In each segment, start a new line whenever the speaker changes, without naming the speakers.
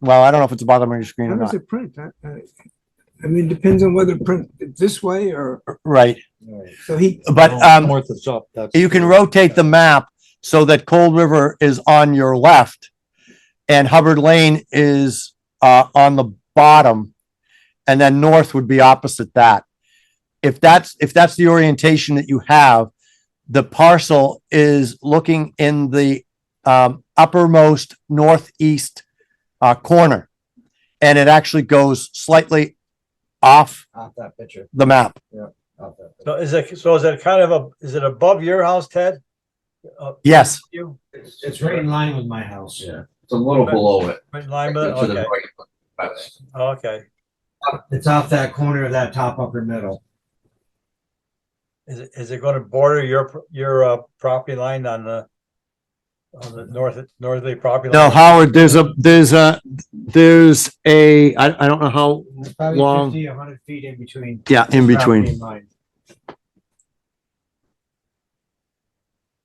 Well, I don't know if it's the bottom of your screen
How
or
does
not.
it print? I, I- I mean, depends on whether it print this way or, or-
Right,
so he,
but, um,
North is up, that's.
you can rotate the map so that Cold River is on your left and Hubbard Lane is, uh, on the bottom. And then north would be opposite that. If that's, if that's the orientation that you have, the parcel is looking in the, um, uppermost northeast, uh, corner. And it actually goes slightly off
Off that picture,
the map.
off that. picture.
So is it, so is it kind of a, is it above your house, Ted? Uh,
Yes.
You,
It's, it's right in line with my house. Yeah.
It's a little below it.
right in line, but,
to the
okay, Oh,
right, but that's-
okay.
It's off that corner of that top upper middle.
Is it, is it gonna border your, your, uh, property line on the, on the north, northerly property?
No,
line?
Howard, there's a, there's a, there's a, I, I don't know how,
It's probably
Long.
fifty, a hundred feet in between.
yeah, in
property
between.
and mine.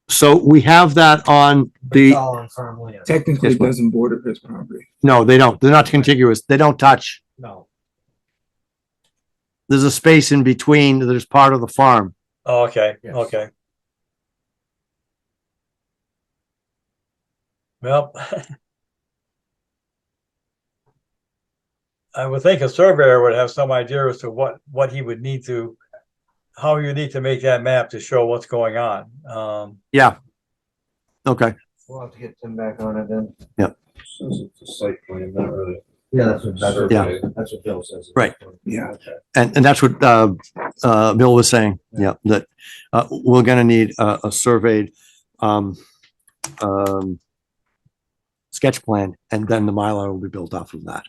So we have that on
It's
the,
all on farm land.
technically
Yes, ma'am.
doesn't border his property.
no, they don't, they're not contiguous, they don't touch.
No,
There's a space in between, that is part of the farm.
Oh, Okay,
Yes.
okay. Well. I would think a surveyor would have some idea as to what, what he would need to, how you need to make that map to show what's going on. Um,
Okay,
we'll have to get Tim back on it then.
Since it's a site plan, not really.
Yeah, that's what, that's what,
Yeah.
that's what Bill says.
Right.
Yeah.
and, and that's what, uh, uh, Bill was saying, yeah, that, uh, we're gonna need a, a surveyed, um, um, sketch plan, and then the Mylar will be built off of that.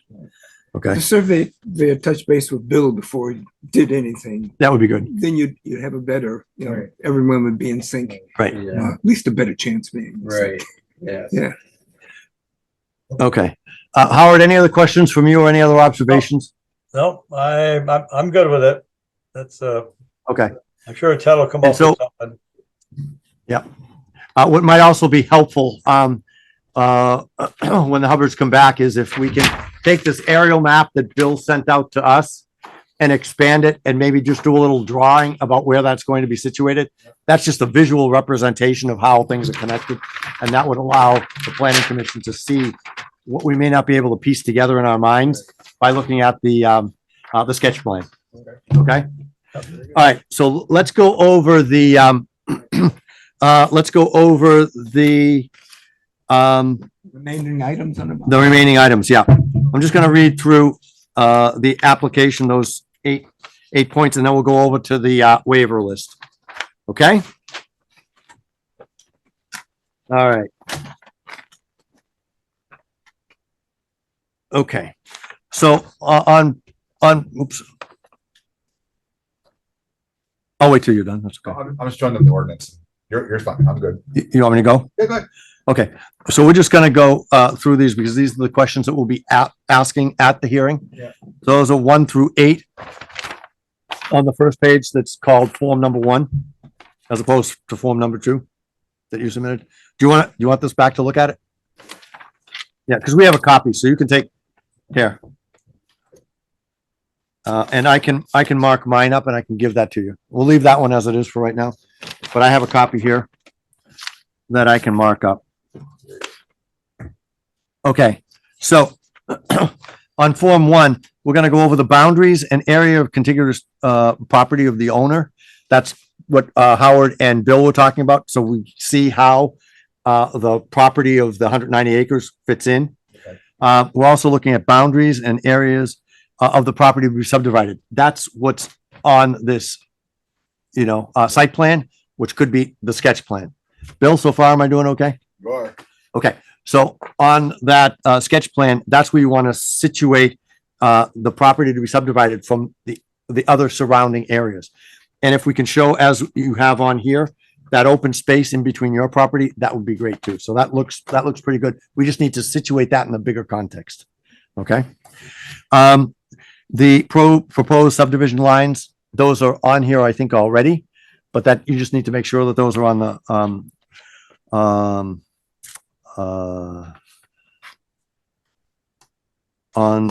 Okay,
The survey, they had touched base with Bill before he did anything.
that would be good,
Then you'd, you'd have a better, you know,
Right.
everyone would be in sync,
right,
uh,
Yeah,
at least a better chance being. in sync.
right, yeah.
okay. Uh, Howard, any other questions from you or any other observations?
no, I, I'm, I'm good with it. That's, uh,
Okay.
I'm sure Ted will come
And
up with something.
Uh, what might also be helpful, um, uh, when the Hubbards come back is if we can take this aerial map that Bill sent out to us and expand it and maybe just do a little drawing about where that's going to be situated. That's just a visual representation of how things are connected. And that would allow the planning commission to see what we may not be able to piece together in our minds by looking at the, um, uh, the sketch plan. Okay? All right, so let's go over the, um, uh, let's go over the, um,
Remaining items on the.
the remaining items, yeah. I'm just gonna read through, uh, the application, those eight, eight points, and then we'll go over to the, uh, waiver list. Okay? All right. Okay, so, uh, on, on, oops. I'll wait till you're done, that's okay.
I'm, I'm just trying to the ordinance. You're, you're fine. I'm good.
You, you want me to go?
Yeah, go ahead.
Okay, so we're just gonna go uh through these because these are the questions that we'll be a- asking at the hearing.
Yeah.
Those are one through eight. On the first page that's called form number one, as opposed to form number two that you submitted. Do you want, do you want this back to look at it? Yeah, because we have a copy, so you can take, here. Uh, and I can, I can mark mine up and I can give that to you. We'll leave that one as it is for right now, but I have a copy here that I can mark up. Okay, so on Form One, we're gonna go over the boundaries and area of contiguous, uh, property of the owner. That's what, uh, Howard and Bill were talking about, so we see how, uh, the property of the hundred ninety acres fits in.
Okay.
Uh, we're also looking at boundaries and areas uh, of the property to be subdivided. That's what's on this, you know, uh, site plan, which could be the sketch plan. Bill, so far, am I doing okay?
You are.
Okay, so on that uh sketch plan, that's where you want to situate uh the property to be subdivided from the the other surrounding areas. And if we can show as you have on here, that open space in between your property, that would be great too. So that looks, that looks pretty good. We just need to situate that in a bigger context. Okay? Um, the pro proposed subdivision lines, those are on here, I think, already. But that you just need to make sure that those are on the um um uh, on